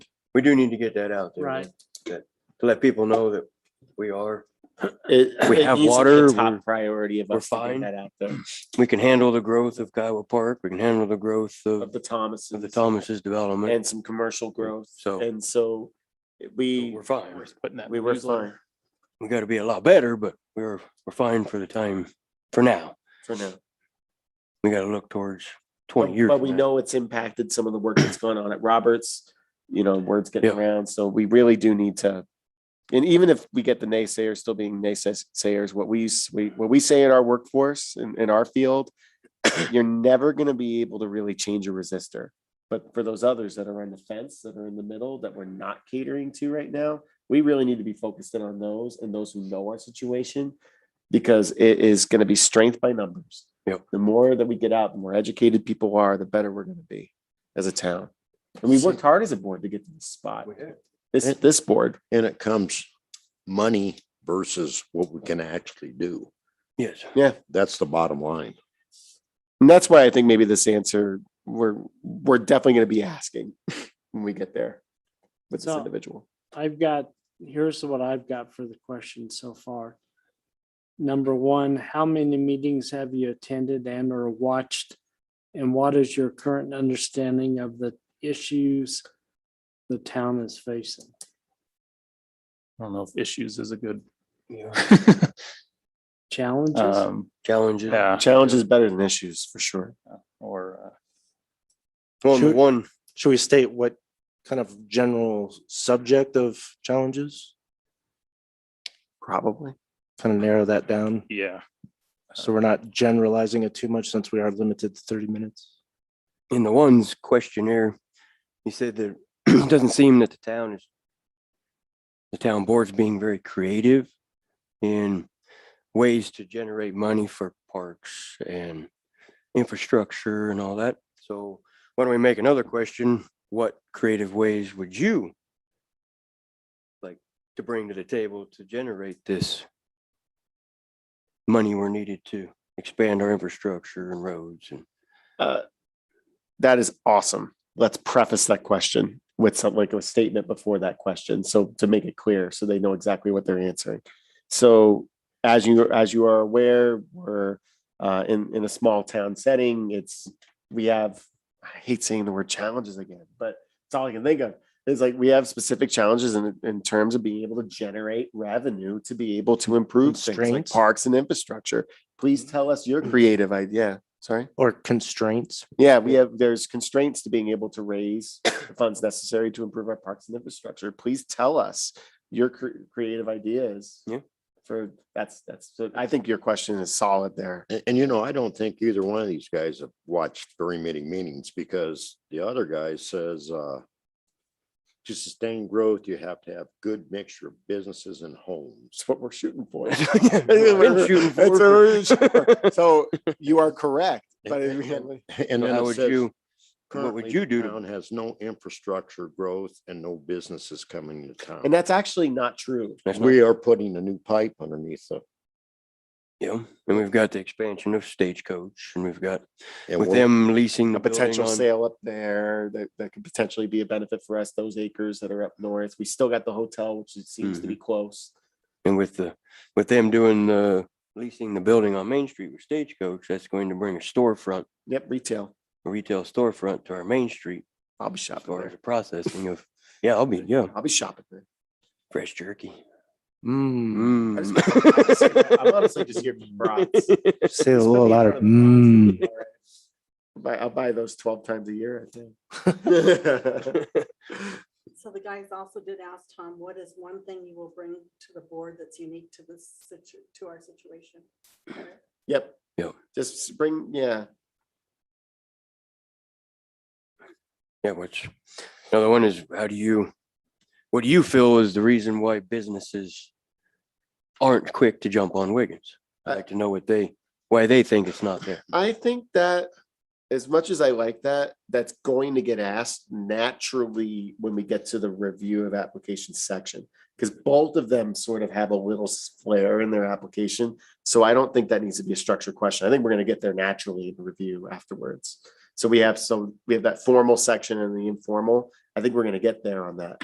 We do need to get that out there. Right. that- To let people know that we are, It- We it have needs to be a water, we're- Top priority of we're us to get fine. Mm. that out there, we can handle the growth of Kiowa Park. We can handle the growth of of, the Thomases. of the Thomas's development. And some commercial growth. So- And so we, We're fine. putting that. we were fine We gotta be a lot better, but we're, we're fine for the time, for now. for now. We gotta look towards But- twenty years. But from we now. know it's impacted some of the work that's gone on at Roberts, you know, word's getting Yeah. around, so we really do need to. And even if we get the naysayers still being naysayers, what we, s- we, what we say in our workforce, in, in our field, you're never gonna be able to really change a resistor. But for those others that are on the fence, that are in the middle, that we're not catering to right now, we really need to be focused in on those and those who know our situation. Because it is gonna be strength by numbers. Yep. The more that we get out, the more educated people are, the better we're gonna be as a town. And we worked hard as a board to get to this spot, We did. this, this board. And it comes money versus what we can actually do. Yes. That's the bottom line. And that's why I think maybe this answer, we're, we're definitely gonna be asking when we get there with this So- individual. I've got, here's what I've got for the question so far. Number one, how many meetings have you attended and or watched? And what is your current understanding of the issues the town is facing? I don't know if issues is a good. Yeah. Challenges? um, Challenges. Yeah, Challenge is better than issues, for sure. or uh, Well, the Should- one, Should we state what kind of general subject of challenges? Probably. Kind of narrow that down, yeah, so we're not generalizing it too much since we are limited to thirty minutes. in the one's questionnaire, he said that it doesn't seem that the town is, the town board's being very creative in ways to generate money for parks and infrastructure and all that. So why don't we make another question? What creative ways would you like to bring to the table to generate this money we're needed to expand our infrastructure and roads and Uh, That is awesome. Let's preface that question with some, like a statement before that question. So to make it clear, so they know exactly what they're answering. So as you, as you are aware, we're uh, in, in a small town setting. It's, we have, I hate saying the word challenges again, but it's all I can think of. It's like we have specific challenges in, in terms of being able to generate revenue to be able to improve things like Constraints. parks and infrastructure. Please tell us your creative idea. Sorry. Or constraints, Yeah, we have, there's constraints to being able to raise the funds necessary to improve our parks and infrastructure. Please tell us your cre- creative ideas. Yeah. For, that's, that's, so I think your question is solid there. And, and you know, I don't think either one of these guys have watched very many meetings because the other guy says, uh, to sustain growth, you have to have good mixture of businesses and homes. It's what we're shooting for. I've been shooting for That's for- what we're shooting for. So you are correct, but And- really- And So then how it would says, you, what currently would you the do? town to- has no infrastructure growth and no businesses coming to town. and that's actually not true. that's not- We are putting a new pipe underneath the Yeah, and we've got the expansion of Stagecoach and we've got, and with we're- them leasing. A the building potential on- sale up there that, that could potentially be a benefit for us, those acres that are up north. We still got the hotel, which it seems to be Mm-hmm. close. And with the, with them doing the, leasing the building on Main Street with Stagecoach, that's going to bring a storefront, Yep, retail. a retail storefront to our Main Street. I'll be As shopping far as there. the processing of, yeah, I'll be, yeah, I'll be shopping there. fresh jerky. I Mm. just- I just- I'm honestly just here for brats. say a little louder. Mm. Buy, I'll buy those twelve times a year, I think. So the guys also did ask Tom, what is one thing you will bring to the board that's unique to this situ, to our situation? Yep. Yep. Just bring, yeah, Yeah, which, another one is, how do you, what do you feel is the reason why businesses aren't quick to jump on Wiggins? I'd I- like to know what they, why they think it's not there. I think that as much as I like that, that's going to get asked naturally when we get to the review of application section. Because both of them sort of have a little s- flair in their application. So I don't think that needs to be a structured question. I think we're gonna get there naturally in the review afterwards. So we have some, we have that formal section and the informal. I think we're gonna get there on that.